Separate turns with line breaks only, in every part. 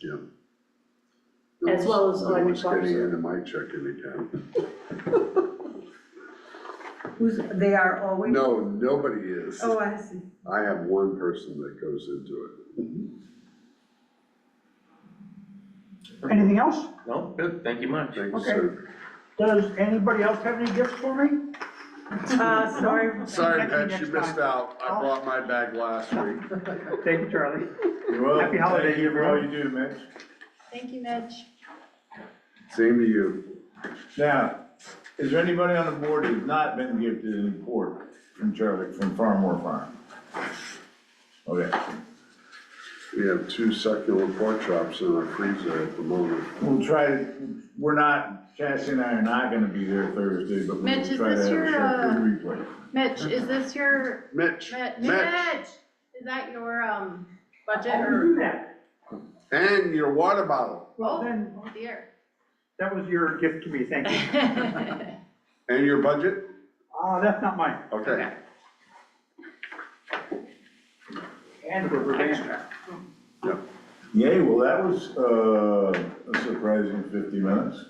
Jim.
As well as
No one's
electric
getting
officer.
into my checking account.
Who's, they are always,
No, nobody is.
oh, I see.
I have one person that goes into it.
Anything else?
No, good, thank you much.
Thank you,
Okay.
sir.
Does anybody else have any gifts for me?
Uh, sorry,
Sorry,
Thank you,
Pat, you
next
missed out. I brought my bag last week.
Thank you, Charlie.
You're welcome.
Happy holidays,
Thank you for all you
everyone.
do, Mitch.
Thank you, Mitch.
Same to you.
Now, is there anybody on the board who's not been gifted any pork from Charlie, from Farmore Farm? Okay,
We have two succulent pork chops in our freezer at the moment.
we'll try, to- we're not, Chastity and I are not gonna be there Thursday, but
Mitch,
we'll
is
try to
this
have
your,
a
uh,
short good replay.
Mitch, is this your,
Mitch,
Mitch,
Mitch,
Mitch, is that your, um, budget
I'll
or,
do that.
and your water bottle,
Well, then,
oh dear.
that was your gift to me, thank you.
and your budget?
Ah, that's not mine.
Okay.
And for Verdan.
Yep.
Yay, well, that was, uh, a surprising fifty minutes.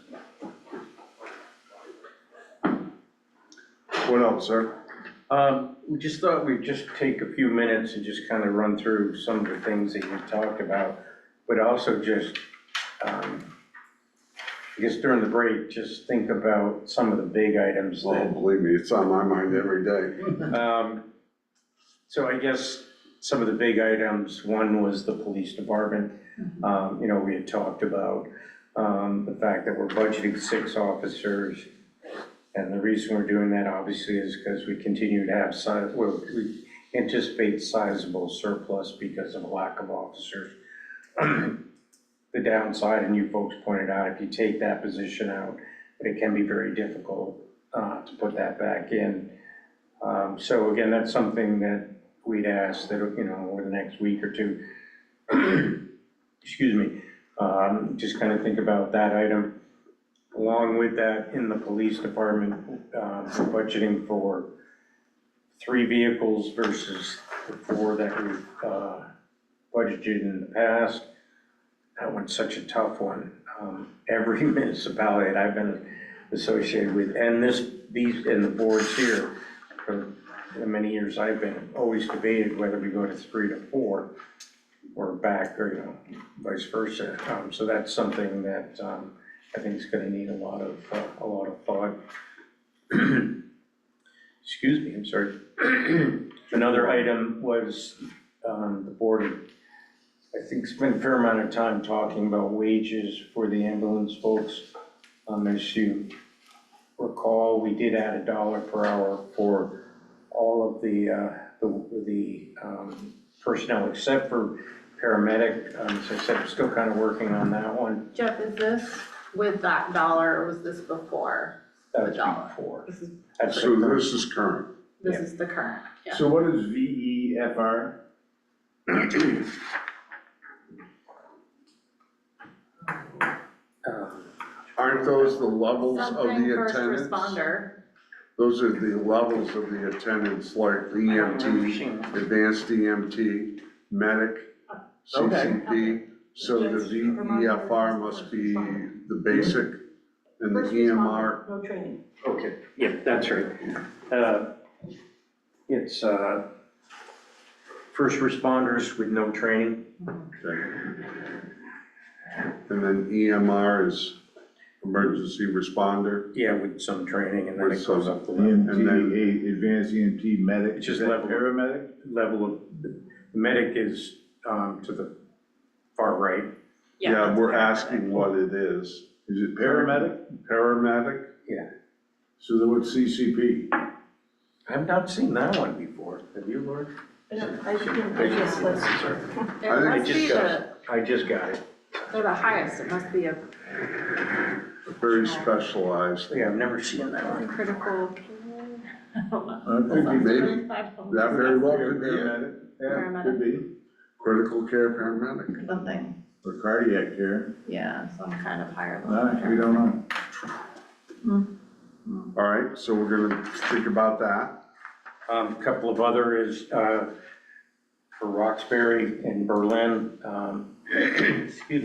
What else, sir?
Um, we just thought we'd just take a few minutes and just kind of run through some of the things that you talked about, but also just, um, I guess during the break, just think about some of the big items
Oh,
that,
believe me, it's on my mind every day.
um, so I guess some of the big items, one was the police department. Um, you know, we had talked about, um, the fact that we're budgeting six officers. And the reason we're doing that obviously is because we continue to have size, well, we anticipate sizable surplus because of a lack of officers. The downside, and you folks pointed out, if you take that position out, but it can be very difficult, uh, to put that back in. Um, so again, that's something that we'd ask that, you know, over the next week or two, excuse me, um, just kind of think about that item. Along with that, in the police department, uh, we're budgeting for three vehicles versus the four that we've, uh, budgeted in the past. That one's such a tough one. Um, every municipality that I've been associated with, and this, these, and the boards here, for the many years I've been, always debated whether we go to three to four or back, or, you know, vice versa. Um, so that's something that, um, I think is gonna need a lot of, uh, a lot of thought. Excuse me, I'm sorry. Another item was, um, the board, I think, spent a fair amount of time talking about wages for the ambulance folks. Um, as you recall, we did add a dollar per hour for all of the, uh, the, the um, personnel except for paramedic. Um, So I said, I'm still kind of working on that one.
Jeff, is this with that dollar or was this before?
That was
The dollar.
before.
This is,
That's
So this is current.
this is the current, yeah.
So what is V E F R?
um,
Aren't those oh, the levels of
Something
the
first
attendance?
responder,
Those are the levels of the attendance, like EMT, advanced EMT, medic, CCP. So the VEFR must be the basic and the E EMR.
No training.
Okay, yeah, that's right. Uh, It's uh, first responders with no training.
okay. And then EMR is emergency responder.
Yeah, with some training and then
With
it goes
some-
up the level.
And then-
EMT, a- advanced EMT medic.
It's just
Is that
level.
Paramedic?
level of, the medic is um, to the far right.
yeah.
Yeah,
that's
we're
the current.
asking what it is.
Is it paramedic?
Paramedic?
So then what's CCP?
I've not seen that one before. Have you, Lord?
I don't, I didn't, I just, that's,
I
It
think
must
it just
be the,
goes- I just got it.
they're the highest, it must be a
Very specialized.
Yeah, I've never seen that one.
critical.
I think we-
Maybe, that very well could be it.
Paramedic, yeah, could be,
Critical care paramedic.
Something,
or cardiac care,
yeah, some kind of higher level.
no, we don't know.
All right, so we're gonna think about that.
Um, Couple of other is uh, for Roxbury and Berlin. um, Excuse